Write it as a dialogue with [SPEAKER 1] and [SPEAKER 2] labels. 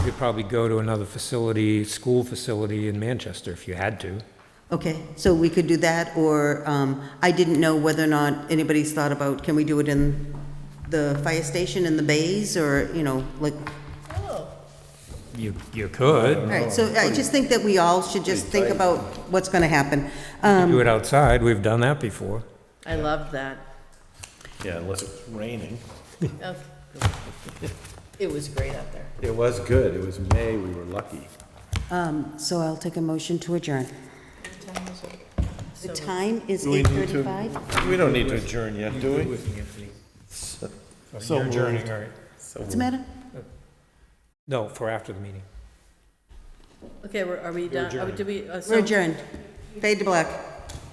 [SPEAKER 1] You could probably go to another facility, school facility in Manchester if you had to.
[SPEAKER 2] Okay, so we could do that, or um, I didn't know whether or not anybody's thought about, can we do it in the fire station in the bays, or, you know, like,
[SPEAKER 3] Oh.
[SPEAKER 1] You, you could.
[SPEAKER 2] all right, so I just think that we all should just think about what's going to happen. Um,
[SPEAKER 1] Do it outside, we've done that before.
[SPEAKER 3] I love that.
[SPEAKER 4] Yeah, unless it's raining.
[SPEAKER 3] Oh, It was great out there.
[SPEAKER 4] It was good. It was May. We were lucky.
[SPEAKER 2] um, So I'll take a motion to adjourn. The time is
[SPEAKER 5] we need to-
[SPEAKER 2] 8:35.
[SPEAKER 4] We don't need to adjourn yet, do we?
[SPEAKER 5] So
[SPEAKER 1] You're adjourning,
[SPEAKER 5] moved.
[SPEAKER 1] all right.
[SPEAKER 2] What's the matter?
[SPEAKER 1] No, for after the meeting.
[SPEAKER 3] Okay, we're- are we done? Are we- did we, uh, so-
[SPEAKER 2] We're adjourned. Fade to black.